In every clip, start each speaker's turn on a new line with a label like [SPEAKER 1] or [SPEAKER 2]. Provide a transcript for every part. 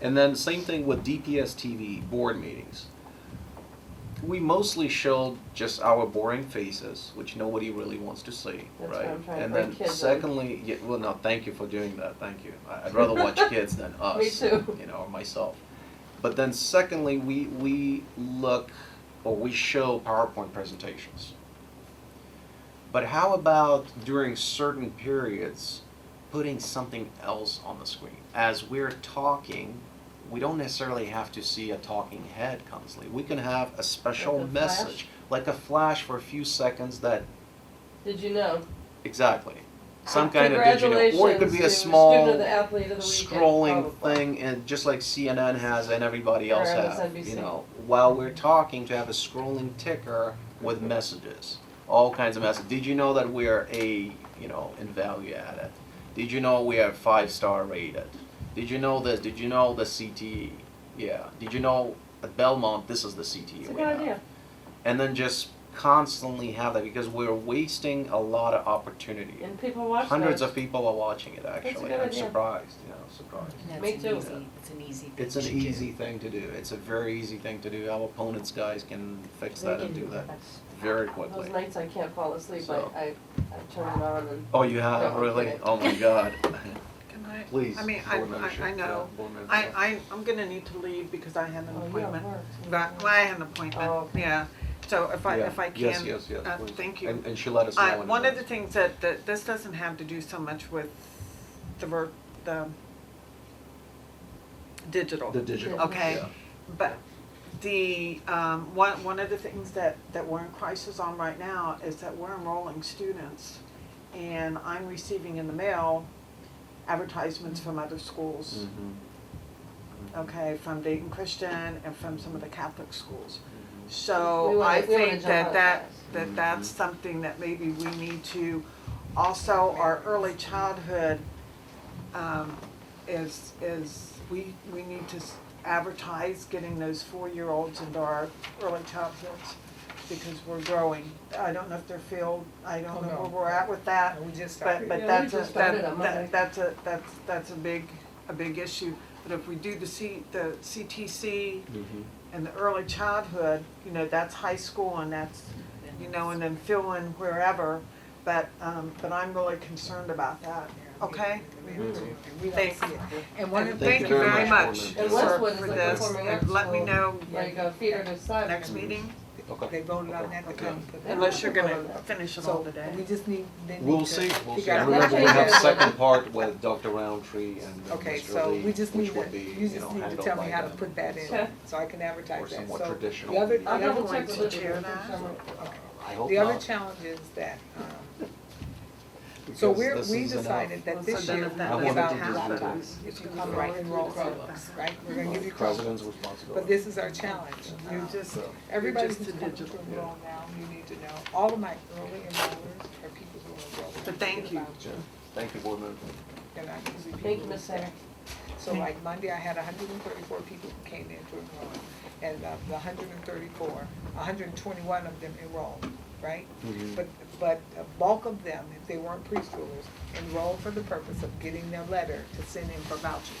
[SPEAKER 1] And then same thing with DPS TV board meetings. We mostly showed just our boring faces, which nobody really wants to see,
[SPEAKER 2] That's why
[SPEAKER 1] right?
[SPEAKER 2] I'm trying to
[SPEAKER 1] and
[SPEAKER 2] bring
[SPEAKER 1] then
[SPEAKER 2] kids in.
[SPEAKER 1] secondly, yeah, well, no, thank you for doing that. Thank you. I, I'd rather watch kids than us,
[SPEAKER 2] too.
[SPEAKER 1] you know, or myself. But then secondly, we we look or we show PowerPoint presentations. But how about during certain periods, putting something else on the screen? As we're talking, we don't necessarily have to see a talking head constantly. We can have a special
[SPEAKER 2] Like a flash?
[SPEAKER 1] message, like a flash for a few seconds that
[SPEAKER 2] Did you know?
[SPEAKER 1] exactly. Some kind of digital, or it could be a small
[SPEAKER 2] Congratulations, you were student of the athlete of the weekend.
[SPEAKER 1] scrolling
[SPEAKER 2] probably.
[SPEAKER 1] thing, and just like CNN has and everybody
[SPEAKER 2] Or
[SPEAKER 1] else has,
[SPEAKER 2] MSNBC.
[SPEAKER 1] you know, while we're talking, to have a scrolling ticker with messages, all kinds of messages. Did you know that we're a, you know, in value added? Did you know we are five star rated? Did you know this? Did you know the CTE? Yeah. Did you know at Belmont this is the CTE
[SPEAKER 2] It's a
[SPEAKER 1] we
[SPEAKER 2] good
[SPEAKER 1] have?
[SPEAKER 2] idea.
[SPEAKER 1] And then just constantly have that because we're wasting a lot of opportunity.
[SPEAKER 2] And people watch those.
[SPEAKER 1] Hundreds of people are watching it actually.
[SPEAKER 2] good
[SPEAKER 1] I'm
[SPEAKER 2] idea.
[SPEAKER 1] surprised, you know, surprised.
[SPEAKER 3] And that's
[SPEAKER 2] Me
[SPEAKER 3] an
[SPEAKER 2] too.
[SPEAKER 3] easy- It's an easy thing
[SPEAKER 1] It's an
[SPEAKER 3] to do.
[SPEAKER 1] easy thing to do. It's a very easy thing to do. Our opponents guys can fix
[SPEAKER 3] They
[SPEAKER 1] that and
[SPEAKER 3] can
[SPEAKER 1] do
[SPEAKER 3] do
[SPEAKER 1] that
[SPEAKER 3] that.
[SPEAKER 1] very
[SPEAKER 2] Those
[SPEAKER 1] quickly.
[SPEAKER 2] nights I can't fall asleep, I,
[SPEAKER 1] So.
[SPEAKER 2] I, I turn it on and.
[SPEAKER 1] Oh, you have,
[SPEAKER 2] No, I'm
[SPEAKER 1] really?
[SPEAKER 2] kidding.
[SPEAKER 1] Oh my god.
[SPEAKER 4] Can I?
[SPEAKER 1] Please.
[SPEAKER 4] I mean, I,
[SPEAKER 1] board member
[SPEAKER 4] I, I
[SPEAKER 1] Shea-
[SPEAKER 4] know,
[SPEAKER 1] yeah, board member
[SPEAKER 4] I,
[SPEAKER 1] Shea.
[SPEAKER 4] I, I'm gonna need to leave because I had an
[SPEAKER 2] Oh, yeah,
[SPEAKER 4] appointment.
[SPEAKER 2] work.
[SPEAKER 4] But, well, I had an appointment,
[SPEAKER 2] Oh.
[SPEAKER 4] yeah, so if I,
[SPEAKER 1] Yeah.
[SPEAKER 4] if I can.
[SPEAKER 1] Yes, yes, yes,
[SPEAKER 4] uh,
[SPEAKER 1] please.
[SPEAKER 4] Thank you.
[SPEAKER 1] And, and she let us know.
[SPEAKER 4] I,
[SPEAKER 1] in
[SPEAKER 4] one of the
[SPEAKER 1] advance.
[SPEAKER 4] things that, that, this doesn't have to do so much with the, ver- the digital.
[SPEAKER 1] The digital.
[SPEAKER 4] Okay.
[SPEAKER 1] yeah.
[SPEAKER 4] But the, um, one, one of the things that, that we're in crisis on right now is that we're enrolling students. And I'm receiving in the mail advertisements from other schools,
[SPEAKER 1] Mhm. Mhm.
[SPEAKER 4] okay, from Dayton Christian and from some of the Catholic schools.
[SPEAKER 1] Mhm.
[SPEAKER 2] We wanna-
[SPEAKER 4] So I
[SPEAKER 2] we wanna
[SPEAKER 4] think
[SPEAKER 2] jump on
[SPEAKER 4] that that,
[SPEAKER 2] that.
[SPEAKER 4] that that's something that maybe we need to, also our early childhood, um, is, is, we, we need to s- advertise getting those four-year-olds into our early childhoods because we're growing. I don't know if they're filled, I
[SPEAKER 5] Oh,
[SPEAKER 4] don't know
[SPEAKER 5] no.
[SPEAKER 4] where we're at with that,
[SPEAKER 5] And we just
[SPEAKER 4] but,
[SPEAKER 5] started.
[SPEAKER 4] but
[SPEAKER 2] Yeah, we
[SPEAKER 4] that's
[SPEAKER 2] just
[SPEAKER 4] a,
[SPEAKER 2] started on
[SPEAKER 4] that,
[SPEAKER 2] Monday.
[SPEAKER 4] that, that's a, that's, that's a big, a big issue. But if we do the C, the CTC
[SPEAKER 1] Mhm.
[SPEAKER 4] and the early childhood, you know, that's high school and that's,
[SPEAKER 3] Then
[SPEAKER 4] you know, and then fill in wherever. But, um, but I'm really concerned about that, okay?
[SPEAKER 5] We
[SPEAKER 1] Mm-hmm.
[SPEAKER 5] have to, and we don't
[SPEAKER 4] Thanks.
[SPEAKER 5] see it.
[SPEAKER 3] And one
[SPEAKER 4] And
[SPEAKER 3] of,
[SPEAKER 1] Thank
[SPEAKER 4] thank
[SPEAKER 1] you
[SPEAKER 4] you
[SPEAKER 1] very
[SPEAKER 4] very
[SPEAKER 1] much, Norman.
[SPEAKER 4] much for,
[SPEAKER 2] And Westwood's
[SPEAKER 4] for
[SPEAKER 2] like a
[SPEAKER 4] this,
[SPEAKER 2] performing arts
[SPEAKER 4] and let me
[SPEAKER 2] school.
[SPEAKER 4] know
[SPEAKER 2] Like a theater to side.
[SPEAKER 4] next meeting,
[SPEAKER 1] Okay.
[SPEAKER 5] They voted on that to come. put that
[SPEAKER 4] unless you're
[SPEAKER 5] on.
[SPEAKER 4] gonna finish it all
[SPEAKER 5] So
[SPEAKER 4] today.
[SPEAKER 5] we just need, they need to.
[SPEAKER 1] We'll see, we'll see.
[SPEAKER 5] figure out-
[SPEAKER 1] Remember, we have
[SPEAKER 2] Yeah.
[SPEAKER 1] second part with Dr. Roundtree and uh,
[SPEAKER 5] Okay,
[SPEAKER 1] Mr.
[SPEAKER 5] so
[SPEAKER 1] Lee,
[SPEAKER 5] we just need
[SPEAKER 1] which
[SPEAKER 5] to,
[SPEAKER 1] would be,
[SPEAKER 5] you
[SPEAKER 1] you know,
[SPEAKER 5] just need to
[SPEAKER 1] handled
[SPEAKER 5] tell me
[SPEAKER 1] by
[SPEAKER 5] how to
[SPEAKER 1] them.
[SPEAKER 5] put that in,
[SPEAKER 2] Sure.
[SPEAKER 5] so I can
[SPEAKER 1] Or
[SPEAKER 5] advertise that,
[SPEAKER 1] somewhat
[SPEAKER 5] so.
[SPEAKER 1] traditional.
[SPEAKER 5] The other, the
[SPEAKER 2] I'll
[SPEAKER 4] Yeah.
[SPEAKER 5] other
[SPEAKER 2] double
[SPEAKER 5] one,
[SPEAKER 2] check with Olivia.
[SPEAKER 4] Yeah.
[SPEAKER 5] okay.
[SPEAKER 1] I hope
[SPEAKER 5] the other
[SPEAKER 1] not,
[SPEAKER 5] challenge is that, um, so
[SPEAKER 1] because
[SPEAKER 5] we're,
[SPEAKER 1] this
[SPEAKER 5] we
[SPEAKER 1] is enough.
[SPEAKER 5] decided that this
[SPEAKER 4] So then
[SPEAKER 5] year
[SPEAKER 4] if
[SPEAKER 5] we
[SPEAKER 4] that
[SPEAKER 5] give
[SPEAKER 1] doesn't
[SPEAKER 5] out
[SPEAKER 1] happen,
[SPEAKER 5] laptops, if you come right and roll Chromebooks, right? We're gonna give you Chromebooks,
[SPEAKER 1] President's responsibility.
[SPEAKER 5] but this is our challenge.
[SPEAKER 4] You
[SPEAKER 5] Um,
[SPEAKER 4] just,
[SPEAKER 5] Everybody
[SPEAKER 4] Just
[SPEAKER 5] who's
[SPEAKER 4] the
[SPEAKER 5] coming to
[SPEAKER 4] digital,
[SPEAKER 5] enroll now, you need to know, all of my early enrollers are people who are enrolling.
[SPEAKER 4] But thank you.
[SPEAKER 1] Yeah. Thank you, board member.
[SPEAKER 5] And I usually people.
[SPEAKER 2] Thank you,
[SPEAKER 5] who
[SPEAKER 2] Miss
[SPEAKER 5] are
[SPEAKER 2] Sarah.
[SPEAKER 5] So like Monday, I had hundred and thirty-four people who came in to enroll, and of the hundred and thirty-four, hundred and twenty-one of them enrolled, right?
[SPEAKER 4] Mm-hmm.
[SPEAKER 5] But, but a bulk of them, if they weren't preschoolers, enrolled for the purpose of getting their letter to send in for vouchers.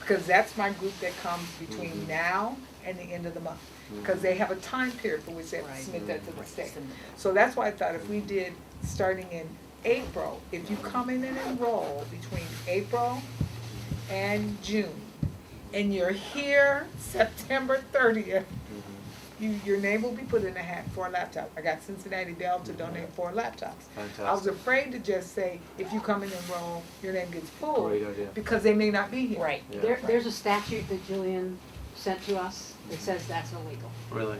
[SPEAKER 5] Because that's my group that comes
[SPEAKER 1] Mhm.
[SPEAKER 5] between now and the end of the month,
[SPEAKER 1] Mm-hmm.
[SPEAKER 5] because they have a time period for which they have to
[SPEAKER 3] Right.
[SPEAKER 5] submit that to the
[SPEAKER 3] Right.
[SPEAKER 5] state.
[SPEAKER 3] Send them.
[SPEAKER 5] So that's why I thought if we did, starting in April, if you come in and enroll between April and June, and you're here September thirtieth,
[SPEAKER 1] Mm-hmm.
[SPEAKER 5] you, your name will be put in a hat for a laptop. I got Cincinnati Bell to donate four laptops. I was
[SPEAKER 1] Mm-hmm. Fantastic.
[SPEAKER 5] afraid to just say, if you come in and enroll, your name gets pulled,
[SPEAKER 1] Great idea.
[SPEAKER 5] because they may not be here.
[SPEAKER 3] right,
[SPEAKER 1] Yeah.
[SPEAKER 6] There, there's a statute that Jillian sent to us that says that's illegal,
[SPEAKER 1] Really?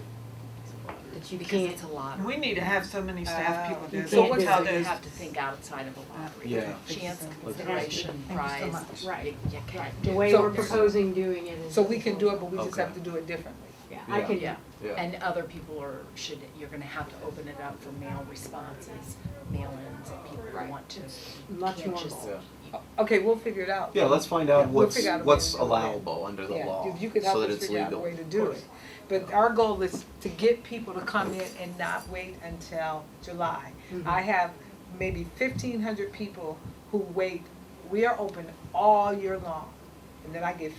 [SPEAKER 3] that you
[SPEAKER 6] Because
[SPEAKER 3] can't,
[SPEAKER 6] it's a lot.
[SPEAKER 4] we need to have so many staff
[SPEAKER 5] Uh,
[SPEAKER 4] people
[SPEAKER 5] you
[SPEAKER 4] do this,
[SPEAKER 5] can't
[SPEAKER 4] Look
[SPEAKER 5] do
[SPEAKER 4] how
[SPEAKER 5] it.
[SPEAKER 3] you
[SPEAKER 4] those-
[SPEAKER 3] have to think outside of the lottery.
[SPEAKER 1] Yeah.
[SPEAKER 3] Chance,
[SPEAKER 1] Let's-
[SPEAKER 3] consideration,
[SPEAKER 5] Thank you so
[SPEAKER 3] prize,
[SPEAKER 5] much.
[SPEAKER 3] right, you
[SPEAKER 6] Right,
[SPEAKER 3] can't
[SPEAKER 6] the
[SPEAKER 3] do.
[SPEAKER 6] way
[SPEAKER 5] So-
[SPEAKER 6] we're proposing doing it is.
[SPEAKER 5] So we can do it, but we just
[SPEAKER 1] Okay.
[SPEAKER 5] have to do it differently.
[SPEAKER 6] Yeah, I
[SPEAKER 1] Yeah.
[SPEAKER 6] can,
[SPEAKER 3] Yeah.
[SPEAKER 1] Yeah.
[SPEAKER 3] And other people are, should, you're gonna have to open it up for mail responses, mail-ins, if people want to. You
[SPEAKER 6] Much
[SPEAKER 3] can't
[SPEAKER 6] more
[SPEAKER 3] just-
[SPEAKER 1] involved.
[SPEAKER 5] Okay, we'll figure it out.
[SPEAKER 1] Yeah, let's find out
[SPEAKER 5] Yeah, we'll
[SPEAKER 1] what's,
[SPEAKER 5] figure out a way
[SPEAKER 1] what's
[SPEAKER 5] to do that.
[SPEAKER 1] allowable under the
[SPEAKER 5] Yeah,
[SPEAKER 1] law,
[SPEAKER 5] if you could
[SPEAKER 1] so
[SPEAKER 5] help
[SPEAKER 1] that
[SPEAKER 5] us
[SPEAKER 1] it's
[SPEAKER 5] figure out a
[SPEAKER 1] legal.
[SPEAKER 5] way to do it. But our goal is to get people to come in and not wait until July. I have maybe fifteen hundred people who wait, we are open all year long. And then I get